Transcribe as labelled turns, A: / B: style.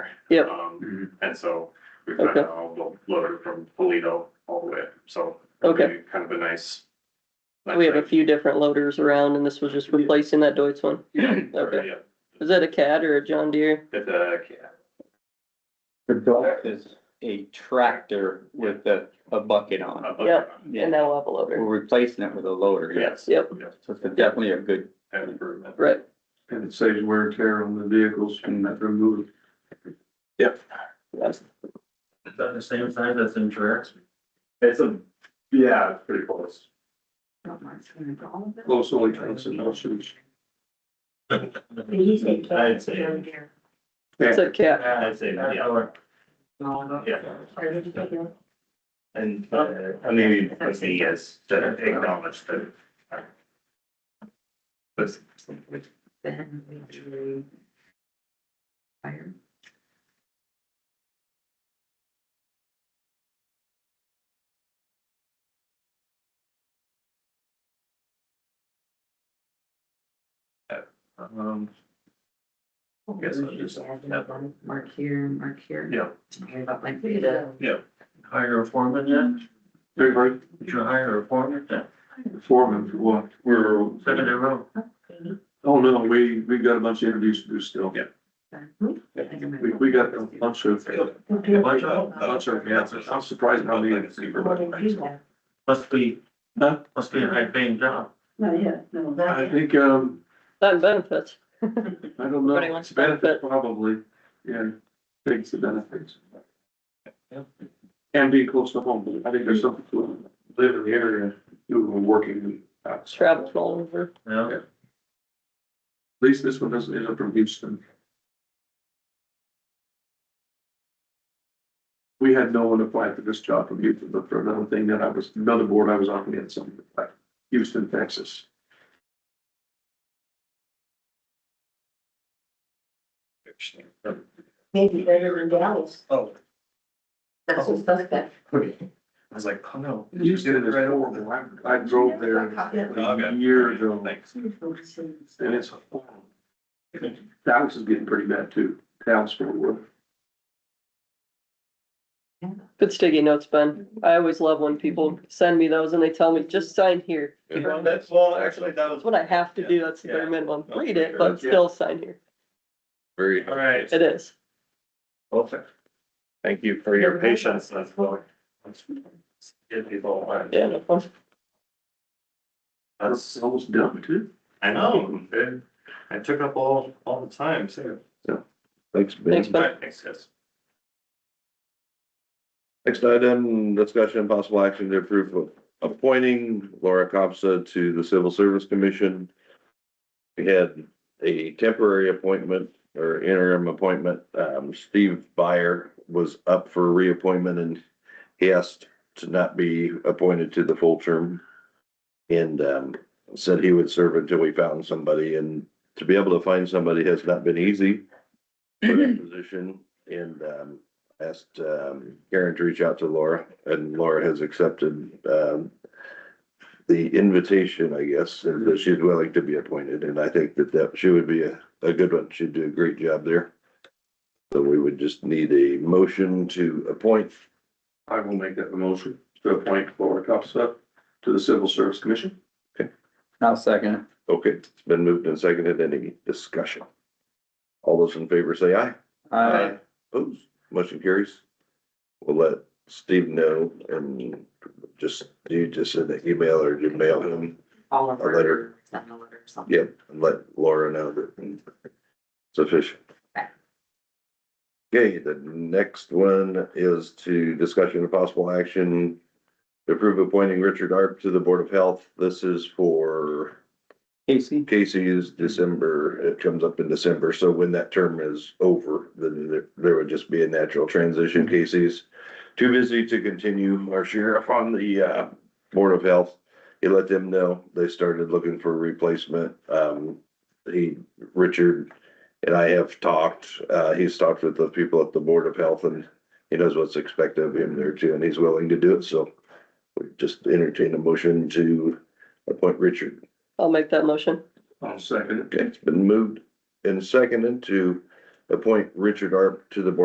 A: Yep.
B: Um, and so we've got
A: Okay.
B: it all lo- loaded from Polito all the way, up. so. it'll
A: Okay.
B: be Kind of a nice.
A: We have a few different loaders around and this was just replacing that Deutz one.
B: Yeah,
A: okay.
B: yeah,
A: Is that a Cat or a John Deere?
B: it's a cat.
C: The dump is a tractor with a, a bucket on
B: a
C: it.
B: bucket
A: Yep.
B: on
C: Yeah,
A: And that'll have a
C: we're
A: loader.
C: replacing it with a loader.
B: it. Yes.
A: Yep.
B: yes,
C: So it's definitely a good,
B: An improvement.
A: Right.
D: And it saves wear and tear on the vehicles and that removes.
A: Yes.
E: Is that the same size as in Trax?
B: It's a, yeah, it's pretty close.
D: Close only counts in those shoes.
E: I'd say,
A: It's a Cat.
E: I'd say, yeah, yeah, and, uh, I mean, I see, yes, to acknowledge that. But
B: Um, guess I'll just-
F: Mark here, mark here.
B: yeah,
F: Don't worry about my data.
E: hire a foreman yet?
D: Very hard,
E: Would you hire a foreman yet?
D: foreman for what, we're,
E: Seven in a row.
D: oh no, we, we got a bunch of interviews to do still.
B: Yeah.
D: We, we got a bunch of, a
E: Bunch of them.
D: bunch of, yeah, I'm surprised how many.
E: Must be,
D: Huh?
E: must be a high paying job.
F: Not yet, no, not
D: I
F: yet.
D: think, um,
A: That and benefits.
D: I don't know,
A: Everybody wants
D: it's benefit probably, yeah, takes the benefits. And being close to home, I think there's something to live in the area, do working. outside.
A: Traveled all over.
E: Yeah,
D: At least this one doesn't end up from Houston. We had no one apply for this job from Houston, but for another thing that I was, another board I was on, we had someone apply, Houston, Texas.
F: Maybe better than Dallas.
E: Oh.
F: That's a suspect.
E: I was like, oh no.
D: Houston is horrible. I- I drove there a year ago
B: Thanks.
D: and it's horrible. Dallas is getting pretty bad too. Dallas, Fort Worth.
A: Good sticky notes, Ben. I always love when people send me those and they tell me, just sign here.
E: Well, that's, well, actually, that
A: That's what I have to do. That's the bare minimum. Read it, but still sign here.
G: Very,
E: All right.
A: It is.
E: Perfect.
G: thank you for
B: Your patience, that's what. Get people, but
A: Yeah, no problem.
B: that's,
D: It's almost done too.
B: I know, it, it took up all, all the time, so.
G: Thanks,
A: Thanks,
G: Ben.
A: Ben.
B: Right, Thanks, guys.
G: Next item, discussion and possible action to approve of appointing Laura Copsa to the Civil Service Commission. We had a temporary appointment or interim appointment. Um, Steve Byer was up for reappointment and he asked to not be appointed to the full term. And, um, said he would serve until we found somebody and to be able to find somebody has not been easy for that position. And, um, asked um, Karen to reach out to Laura, and Laura has accepted um, the invitation, I guess, and that she's willing to be appointed, and I think that that she would be a, a good one. She'd do a great job there. So we would just need a motion to appoint.
D: I will make that a motion to appoint Laura Copsa to the Civil Service Commission.
C: I'll second it.
G: Okay, it's been moved and seconded. Any discussion? All those in favor say aye.
C: Uh,
G: Opposed? Motion carries. We'll let Steve know and just, you just send an email or you mail him
F: All of
G: A letter.
F: her, send a letter or something.
G: Yep, and let Laura know that it's official. Okay, the next one is to discussion of possible action to approve appointing Richard Arp to the Board of Health. This is for
C: Casey,
G: Casey's December, it comes up in December, so when that term is over, then there, there would just be a natural transition. Casey's too busy to continue our sheriff on the, uh, Board of Health. He let them know, they started looking for a replacement. Um, he, Richard and I have talked, uh, he's talked with the people at the Board of Health and he knows what's expected of him there too, and he's willing to do it, so we just entertain a motion to appoint Richard
A: I'll make that motion.
D: I'll second it.
G: Okay, it's been moved and seconded to appoint Richard Arp to the Board